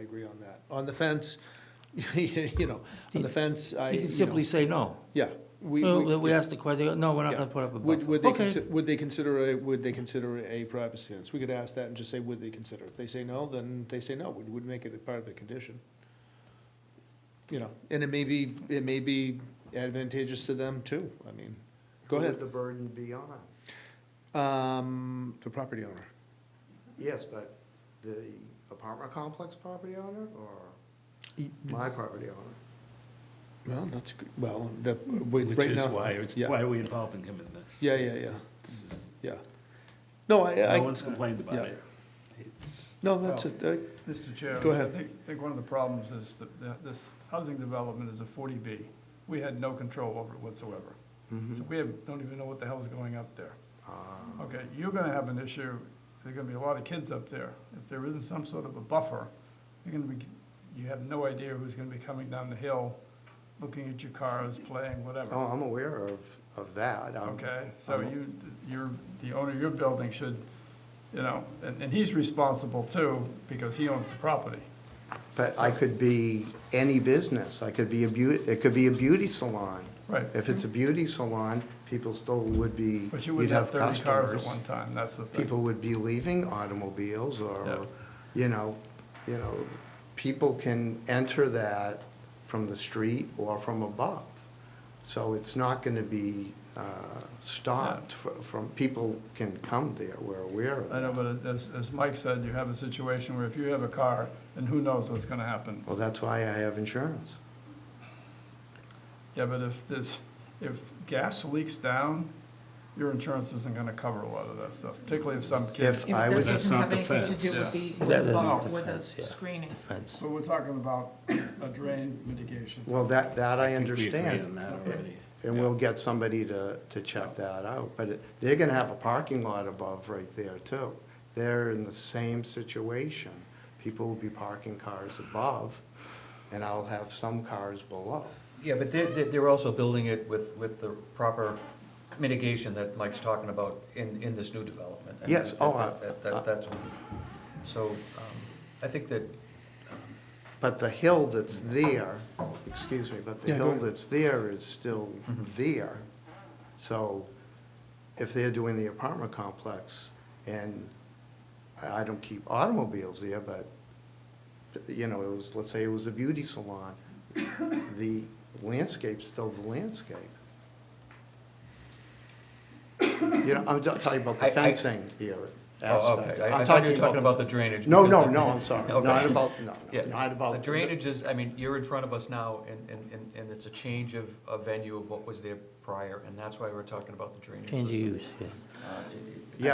agree on that. On the fence, you know, on the fence, I, You can you know, simply say no. yeah. we- Well, We yeah, asked the question, no, we're not yeah. gonna put up a Would, would they, buffer. Okay, consi- would they consider a, would they consider a private stance? We could ask that and just say, would they consider? If they say no, then they say no, we would make it a part of the condition. You know, and it may be, it may be advantageous to them too, I mean, go Who would ahead. the burden be on? Um, the property owner. Yes, but the apartment complex property owner or my property owner? Well, that's, a good- well, the, we- Which right is now. why, it's yeah. why are we involving him in this? Yeah, yeah, yeah, This is- yeah. No, I, No I, one's complained about yeah. it. It's- no, that's it, I- Mr. Chair. Go ahead. I think, I think one of the problems is that the- this housing development is a 40B. We had no control over it whatsoever. Mm-hmm. So we have, don't even know what the hell's going up there. Ah, Okay, you're gonna have an issue, there's gonna be a lot of kids up there. If there isn't some sort of a buffer, you're gonna be, you have no idea who's gonna be coming down the hill, looking at your cars, playing, Oh, whatever. I'm aware of, of that. Um, I'm- Okay, so I'm- you, you're, the owner of your building should, you know, and, and he's responsible too, because he owns the property. But I could be any business. I could be a beauty, it could be a beauty salon. Right. If it's a beauty salon, people still would be, But you you'd wouldn't have have thirty cars at customers. one time, that's the thing. People would be leaving automobiles Yeah. or, you know, you know, people can enter that from the street or from above. So it's not gonna be, uh, stopped fr- from, people can come there. We're aware of I it. know, but as, as Mike said, you have a situation where if you have a car, and who knows what's gonna happen. Well, that's why I have insurance. Yeah, but if this, if gas leaks down, your insurance isn't gonna cover a lot of that stuff, particularly if some kid. If Yeah, I but was. That doesn't not have the anything to fence, do yeah. with the, That with isn't the- the with the fence, yeah. screening. Fence. But we're talking about a drain mitigation. Well, that, that I think we agree understand. on that And- already. And we'll get somebody to, to check that out, but it- they're gonna have a parking lot above right there too. They're in the same situation. People will be parking cars above, and I'll have some cars below. Yeah, but they're, they're they're also building it with, with the proper mitigation that Mike's talking about in, in this new development. And Yes, that- oh, I- that- that- That's, so um, I think that, But the hill that's there, excuse me, but the Yeah, go hill ahead. that's there is still Mm-hmm. there. So if they're doing the apartment complex, and I I don't keep automobiles there, but, you know, it was, let's say it was a beauty salon, the landscape's still the landscape. You know, I'm just talking about the I- I- fencing here oh, aspect. okay, I I I'm thought you were talking about the drainage. No, because no, the- no, I'm sorry, Okay. not about, Oh, no, Yeah, no, not about. The drainage is, I mean, you're in front of us now, and, and, and- and it's a change of, a venue of what was there prior, and that's why we're talking about the drainage Change system. Uh, of use, yeah.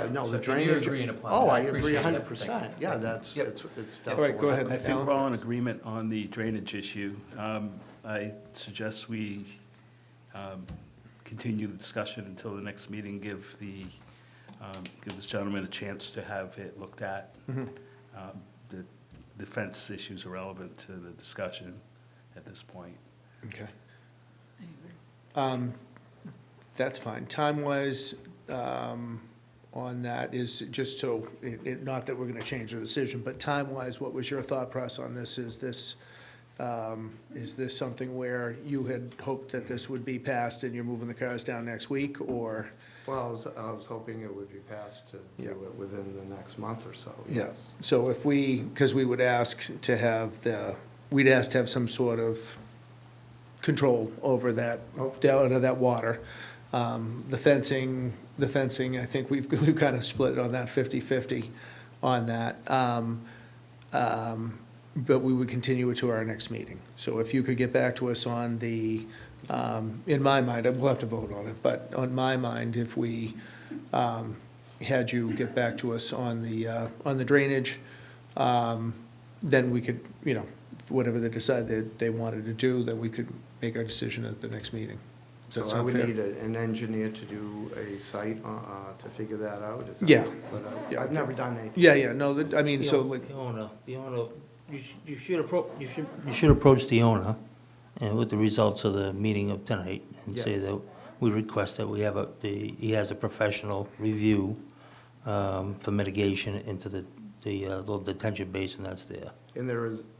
Yeah, no, So- the and you're drainage. agreeing upon Oh, this. I Appreciate agree that. hundred Thank percent, you. yeah, Thank you. that's, Yep. it's, it's All definitely. right, go ahead. I think we're all in agreement on the drainage issue. Um, I suggest we um, continue the discussion until the next meeting, give the, um, give this gentleman a chance to have it looked at. Um, The the fence issues are relevant to the discussion at this point. Okay. Um, That's fine. Time-wise, um, on that is just so, it- it- not that we're going to change the decision, but time-wise, what was your thought process on this? Is this, um, is this something where you had hoped that this would be passed and you're moving the cars down next week, or? Well, I was, I was hoping it would be passed to Yeah. do it within the next month or so, Yeah. yes. So if we, because we would ask to have the, we'd ask to have some sort of control over that, Oh. down to that water. Um, The fencing, the fencing, I think we've, we've kind of split on that 50-50 on that. Um, um, But we would continue it to our next meeting. So if you could get back to us on the, um, in my mind, and we'll have to vote on it, but on my mind, if we um, had you get back to us on the, uh, on the drainage, um, then we could, you know, whatever they decide that they wanted to do, then we could make our decision at the next meeting. Does So that I sound would fair? need a- an engineer to do a site, uh, uh, to figure that out. is that- Yeah. But I- Yeah. I've never done anything. Yeah, yeah, no, that- I mean, The so own- like, The owner, the owner, you should, you should approach, you should, you should approach the owner and with the results of the meeting of tonight and say Yes. that we request that we have a, the, he has a professional review um, for mitigation into the, the uh, little detention basin that's there. And there is,